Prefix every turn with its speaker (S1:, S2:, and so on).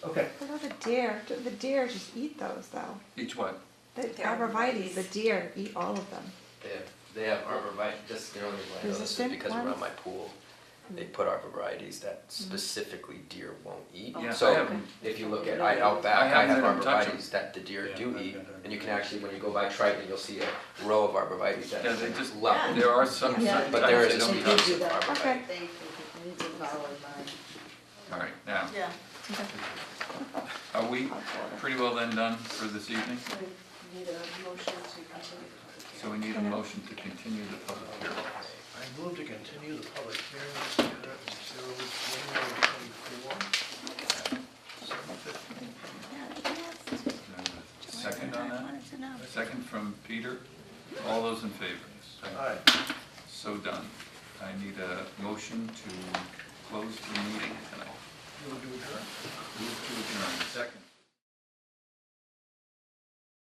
S1: Okay.
S2: What about the deer? Do The deer just eat those though.
S1: Each one.
S2: The
S3: They're
S2: arborvitae, the deer eat all of them.
S4: They have, they have arborvitae, just, you know, I know this is
S2: Resistant
S4: because around
S2: ones? Mm-hmm.
S4: my pool, they put arborvitaes that specifically deer won't eat.
S1: Yeah, I
S4: So
S1: have 'em.
S4: if you look at, I out
S1: I
S4: back, I
S1: haven't
S4: have
S1: had 'em touch 'em.
S4: arborvitaes that the deer
S5: Yeah,
S4: do
S5: I've
S4: eat,
S5: got that.
S4: and you can actually, when you go by Triton, you'll see a row of arborvitaes that
S1: Yeah,
S4: are
S1: they just,
S4: level.
S1: there are some
S3: Yeah.
S1: certain
S4: But there
S1: types
S4: is
S1: they
S4: no
S1: don't
S4: touch
S1: touch.
S4: of arborvitae.
S2: Okay.
S3: They, they did follow mine.
S1: All right, now,
S3: Yeah.
S1: are we pretty well then done for this evening?
S3: So we need
S1: So we need
S3: a motion to continue the public
S1: a motion to continue the public hearing.
S5: I move to continue the public hearing, zero, January twenty-four, seven fifteen.
S1: Second on that? Second from Peter. All those in favor?
S5: Aye.
S1: So done. I need a motion to close the meeting tonight.
S5: Move to adjourn.
S1: Move to adjourn. Second.